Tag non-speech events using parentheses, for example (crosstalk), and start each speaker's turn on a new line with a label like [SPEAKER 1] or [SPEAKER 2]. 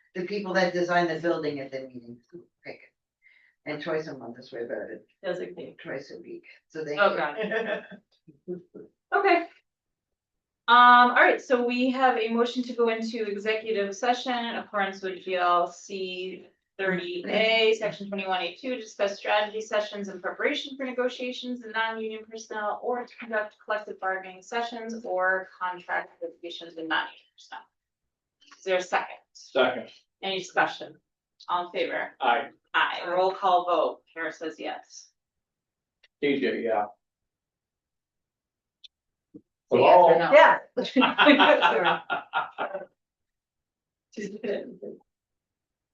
[SPEAKER 1] the people that designed the building at the meeting, pick it. And twice a month is where they're at,
[SPEAKER 2] designate.
[SPEAKER 1] twice a week, so they.
[SPEAKER 2] Oh, God.
[SPEAKER 1] (laughs)
[SPEAKER 2] Okay. Um, all right, so we have a motion to go into executive session in accordance with GLC thirty A, section twenty-one eight two, discuss strategy sessions in preparation for negotiations and non-union personnel or to conduct collective bargaining sessions or contract negotiations with non-union personnel. Is there a second?
[SPEAKER 3] Second,
[SPEAKER 2] Any discussion? All in favor?
[SPEAKER 3] I,
[SPEAKER 2] Aye, roll call vote. Kara says yes.
[SPEAKER 3] TJ, yeah. (laughs)
[SPEAKER 2] Hello?
[SPEAKER 1] Yeah.
[SPEAKER 2] (laughs) She did.